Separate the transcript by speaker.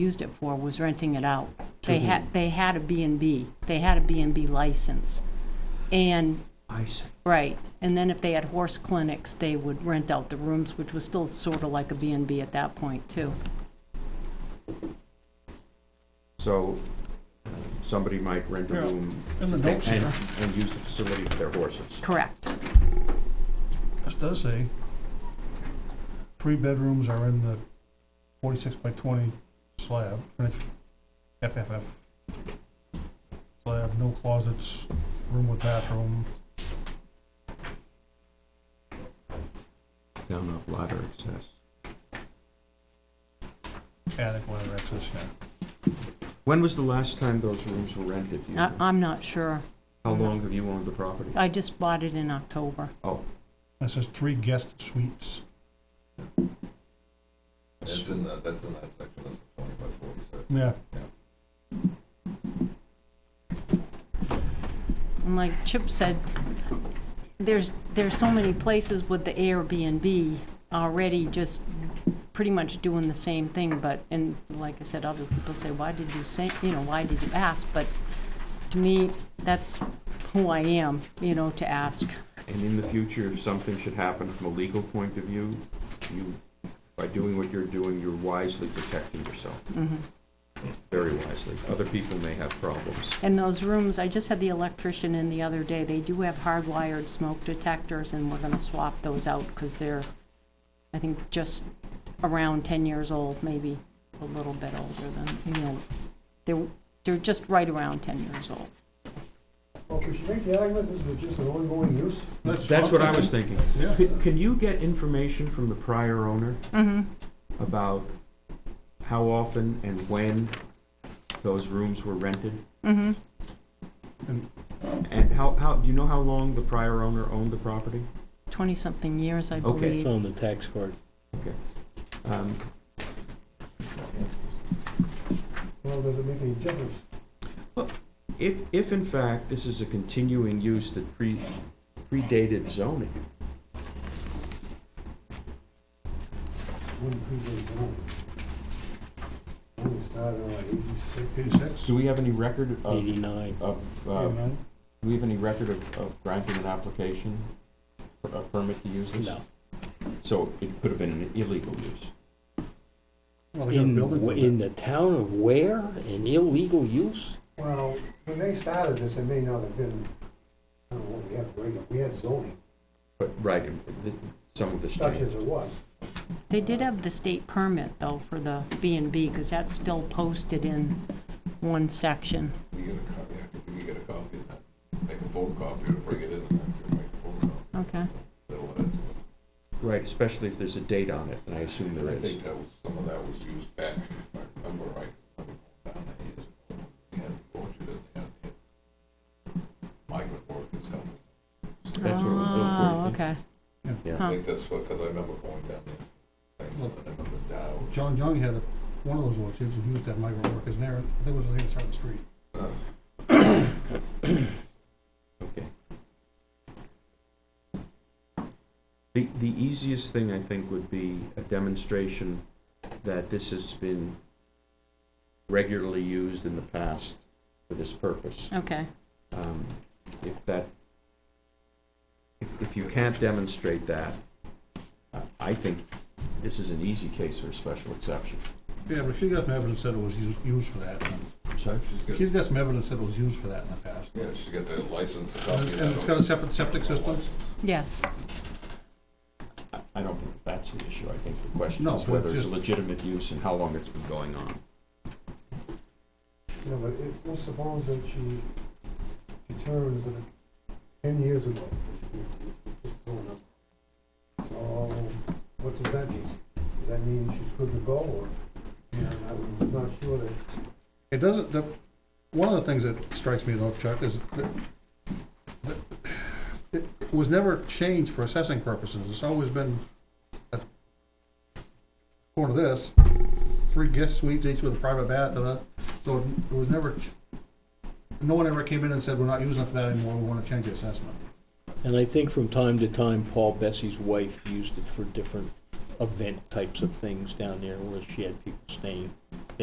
Speaker 1: used it for was renting it out. They had, they had a B and B, they had a B and B license. And,
Speaker 2: I see.
Speaker 1: right, and then if they had horse clinics, they would rent out the rooms, which was still sort of like a B and B at that point, too.
Speaker 2: So somebody might rent a
Speaker 3: Yeah,
Speaker 2: room
Speaker 3: in the
Speaker 2: and,
Speaker 3: notes
Speaker 2: and
Speaker 3: here.
Speaker 2: and use the facility for their horses.
Speaker 1: Correct,
Speaker 3: This does say, three bedrooms are in the forty-six by twenty slab, finished FFF. Slab, no closets, room with bathroom,
Speaker 2: Down off ladder access.
Speaker 3: attic ladder access, yeah.
Speaker 2: When was the last time those rooms were rented? do you
Speaker 1: I,
Speaker 2: know?
Speaker 1: I'm not sure,
Speaker 2: How long have you owned the property?
Speaker 1: I just bought it in October.
Speaker 2: Oh,
Speaker 3: That says three guest suites.
Speaker 4: That's in the, that's in that section, that's twenty by forty-six.
Speaker 3: Yeah,
Speaker 1: And like Chip said, there's, there's so many places with the Airbnb already just pretty much doing the same thing, but, and like I said, other people say, why did you say, you know, why did you ask? But to me, that's who I am, you know, to ask.
Speaker 2: and in the future, if something should happen from a legal point of view, you, by doing what you're doing, you're wisely protecting yourself,
Speaker 1: Mhm.
Speaker 2: very wisely. Other people may have problems.
Speaker 1: And those rooms, I just had the electrician in the other day, they do have hardwired smoke detectors, and we're gonna swap those out, because they're, I think, just around ten years old, maybe a little bit older than, you know, they're, they're just right around ten years old.
Speaker 5: Well, could you make the argument this is just an ongoing use?
Speaker 2: That's what I was thinking.
Speaker 3: Yeah.
Speaker 2: Can- Can you get information from the prior owner about how often and when those rooms were rented? And how, how, do you know how long the prior owner owned the property?
Speaker 1: Twenty-something years, I
Speaker 2: Okay,
Speaker 1: believe.
Speaker 6: It's on the tax card.
Speaker 2: Um,
Speaker 5: Well, does it make any difference?
Speaker 2: If, if in fact this is a continuing use that pre predated zoning,
Speaker 5: Wouldn't predate the home. Only started in like eighty-six.
Speaker 3: Eighty-six,
Speaker 2: do we have any record of,
Speaker 5: Mm-hmm.
Speaker 6: Eighty-nine.
Speaker 2: of, uh, do
Speaker 3: eighty-nine,
Speaker 2: we have any record of, of granting an application, for a permit to use this?
Speaker 6: No.
Speaker 2: So it could have been an illegal use.
Speaker 3: well, they got a
Speaker 6: In,
Speaker 3: building.
Speaker 6: wh- in the town of Ware, an illegal use?
Speaker 5: Well, when they started this, it may not have been, I don't know, what we had regular, we had zoning,
Speaker 2: But, right, and th- some of this
Speaker 5: such
Speaker 2: change.
Speaker 5: as it was.
Speaker 1: They did have the state permit, though, for the B and B, because that's still posted in one section.
Speaker 4: We get a copy, I think we get a copy of that, make a photocopy to bring it in and actually make a photocopy.
Speaker 1: Okay.
Speaker 4: That'll add to it.
Speaker 2: Right, especially if there's a date on it, and I assume there
Speaker 4: I
Speaker 2: is.
Speaker 4: think that was, some of that was used back, if I remember right, down there years ago. when We had the orchard and they had the migrant workers helping.
Speaker 2: That's what it was built for, I
Speaker 1: Oh,
Speaker 2: think.
Speaker 1: okay.
Speaker 4: I
Speaker 1: Huh.
Speaker 4: think that's what, because I remember going down there, things, and I remember Dow.
Speaker 3: John Young had a- one of those orchards, and he used to have migrant workers in there, I think it was on the other side of the street.
Speaker 2: Okay. The, the easiest thing, I think, would be a demonstration that this has been regularly used in the past for this purpose.
Speaker 1: Okay,
Speaker 2: Um, If that, if, if you can't demonstrate that, I- I think this is an easy case for a special exception.
Speaker 3: Yeah, but she's got some evidence that it was used, used for that, and
Speaker 4: She's got,
Speaker 3: She's got some evidence that it was used for that in the past.
Speaker 4: yeah, she's got the license. a
Speaker 3: And
Speaker 4: copy of
Speaker 3: it's-
Speaker 4: that
Speaker 3: and it's got a separate septic system?
Speaker 4: License.
Speaker 1: yes,
Speaker 2: I- I don't think that's the issue. I think the question
Speaker 3: No,
Speaker 2: is
Speaker 3: but
Speaker 2: whether it's a
Speaker 3: just-
Speaker 2: legitimate use and how long it's been going on.
Speaker 5: You know, but it, let's suppose that she determines that ten years ago. it's grown up. So, what does that mean? Does that mean she's good to go, or, you know, I'm not sure that
Speaker 3: It doesn't, the, one of the things that strikes me though, Chuck, is that, that it it was never changed for assessing purposes, it's always been, uh, according to this, three guest suites, each with a private bath, and a- so it was never, ch- no one ever came in and said, we're not using it for that anymore, we wanna change the assessment.
Speaker 6: And I think from time to time, Paul Bessie's wife used it for different event types of things down there where she had people staying.